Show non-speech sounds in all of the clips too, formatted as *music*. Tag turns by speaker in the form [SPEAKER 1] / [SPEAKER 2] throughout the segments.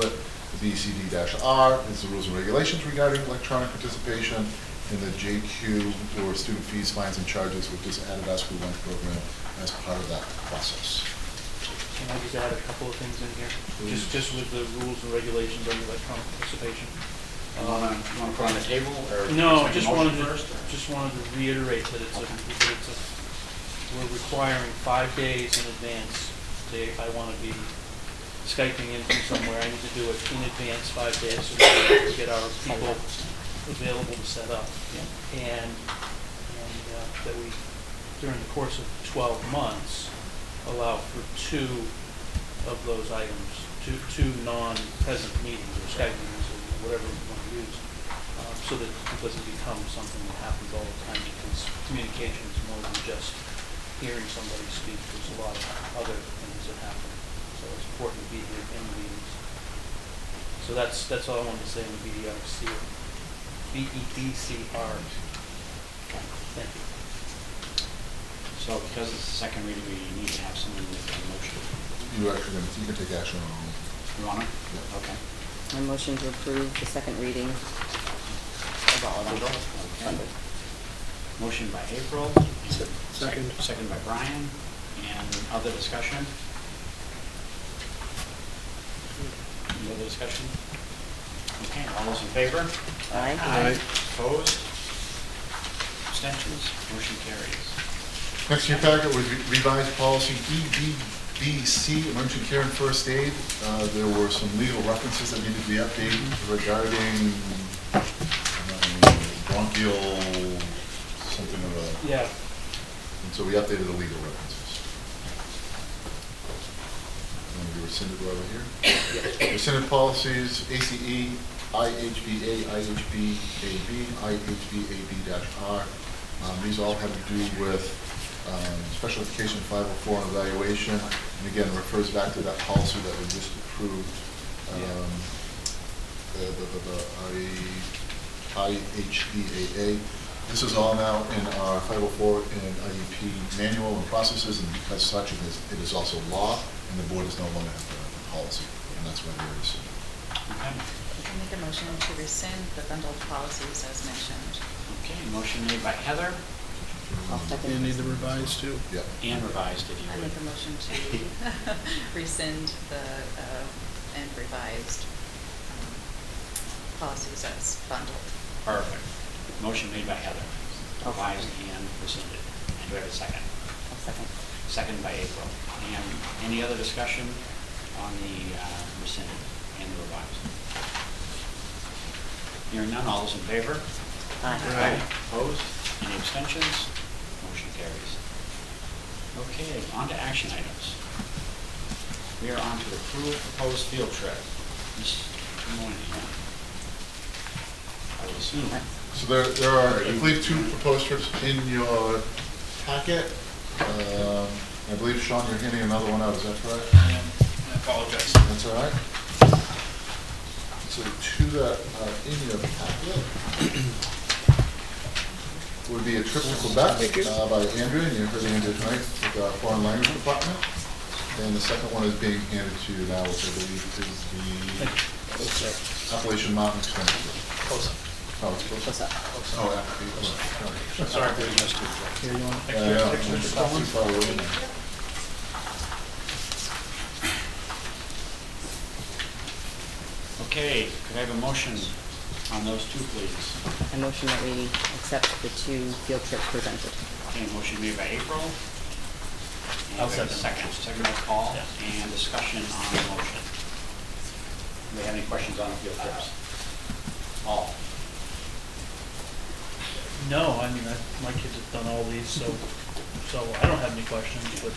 [SPEAKER 1] The E BCD R is the rules and regulations regarding electronic participation, and the JQ or student fees, fines, and charges, which is added as we went program as part of that process.
[SPEAKER 2] Can I just add a couple of things in here?
[SPEAKER 1] Please.
[SPEAKER 2] Just, just with the rules and regulations on electronic participation.
[SPEAKER 3] You wanna, you wanna put on the table, or?
[SPEAKER 2] No,
[SPEAKER 3] make a
[SPEAKER 2] just
[SPEAKER 3] motion
[SPEAKER 2] wanted to,
[SPEAKER 3] first, or-
[SPEAKER 2] just wanted to reiterate that it's a, that it's a, we're requiring five days in advance. Say if I want to be Skyping in from somewhere, I need to do it in advance, five days, so we can get our people available to set up. And, and uh, that we, during the course of twelve months, allow for two of those items, two, two non-present meetings or Skype meetings or whatever you want to use. um, So that it doesn't become something that happens all the time because communication is more than just hearing somebody speak. There's a lot of other things that happen. So it's important to be here in the meetings. So that's, that's all I wanted to say on the BDRC, E BEDCR. Thank you.
[SPEAKER 3] So because it's the second reading, we need to have someone make a motion.
[SPEAKER 1] You actually, can- you can take action on all of them.
[SPEAKER 3] You wanna?
[SPEAKER 1] Yeah.
[SPEAKER 3] Okay.
[SPEAKER 4] My motion to approve the second reading of all of them.
[SPEAKER 3] Okay. Motion by April. and Second. Second by Brian, and other discussion? Any other discussion? Okay, all those in favor?
[SPEAKER 4] Aye.
[SPEAKER 3] Opposed? Abstentions? Motion carries.
[SPEAKER 1] Next in your packet was revised policy E EBBC, emergency care and first aid. Uh, There were some legal references that needed to be updated regarding uh, um, bronchial, something or other.
[SPEAKER 2] Yeah,
[SPEAKER 1] And so we updated the legal references. And we rescinded over here. Rescinded policies, E, ACE, IHBA, IHBAB, IHBAB-R. Um, These all have to do with um, special education 504 and evaluation. And again, refers back to that policy that we just approved. um, the- the- the- the I- IHBAA. This is all now in our 504 and IEP manual and processes, and because such, it is, it is also law, and the board is no longer have a policy, and that's why there is.
[SPEAKER 3] Okay,
[SPEAKER 5] I Make a motion to rescind the bundled policies as mentioned.
[SPEAKER 3] okay, motion made by Heather
[SPEAKER 4] I'll second.
[SPEAKER 6] You need to revise too.
[SPEAKER 1] Yeah.
[SPEAKER 3] and revised, if you
[SPEAKER 5] I
[SPEAKER 3] would.
[SPEAKER 5] make a motion to *laughs* rescind the, uh, and revised um, policies as bundled.
[SPEAKER 3] *laughs* Perfect. Motion made by Heather, revised and rescinded. And do we have a second?
[SPEAKER 4] I'll Oh, second.
[SPEAKER 3] Second by April. And any other discussion on the uh, rescinded and the revised? Hearing none, all those in favor?
[SPEAKER 4] Aye.
[SPEAKER 3] Opposed? Any abstentions? Motion carries. Okay, on to action items. We are on to the approved proposed field trip. Ms. Moynihan. I will assume.
[SPEAKER 1] So there, there are, I believe, two proposed trips in your packet. Um, I believe, Sean, you're handing another one out, is that correct?
[SPEAKER 7] I apologize.
[SPEAKER 1] That's all right. So to the, uh, in your packet would be a trip to Quebec uh, by Andrew, and you heard Andrew tonight with our foreign language department. And the second one is being handed to you now, which I believe is the Appalachian Mountain Expedition. Oh, it's close
[SPEAKER 4] Close
[SPEAKER 1] up.
[SPEAKER 4] up.
[SPEAKER 1] Oh, Appalachian. Sorry.
[SPEAKER 3] Sorry, we missed it.
[SPEAKER 6] Here, you want?
[SPEAKER 1] Yeah, yeah, it's too far away.
[SPEAKER 3] Okay, could I have a motion on those two, please?
[SPEAKER 4] I motion that we accept the two field trips presented.
[SPEAKER 3] Okay, motion made by April. And
[SPEAKER 2] I'll
[SPEAKER 3] we have a
[SPEAKER 2] second.
[SPEAKER 3] Second, second by Paul,
[SPEAKER 2] Yeah.
[SPEAKER 3] and discussion on the motion. Do we have any questions on the field trips? All,
[SPEAKER 2] no, I mean, I, my kids have done all these, so, so I don't have any questions, but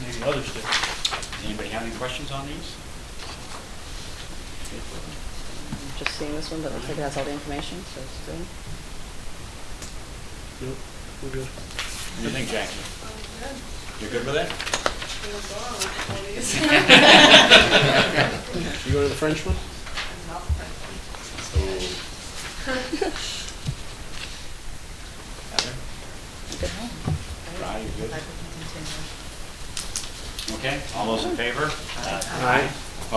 [SPEAKER 2] maybe others do.
[SPEAKER 3] does anybody have any questions on these?
[SPEAKER 4] Just seeing this one, but it looks like it has all the information, so it's good.
[SPEAKER 6] Yep, we're good.
[SPEAKER 3] What do you think, Jackie? You're good with it?
[SPEAKER 6] You go to the French one?
[SPEAKER 3] Heather? Right, you're good.
[SPEAKER 5] I will continue.
[SPEAKER 3] Okay, all those in favor?
[SPEAKER 6] Aye.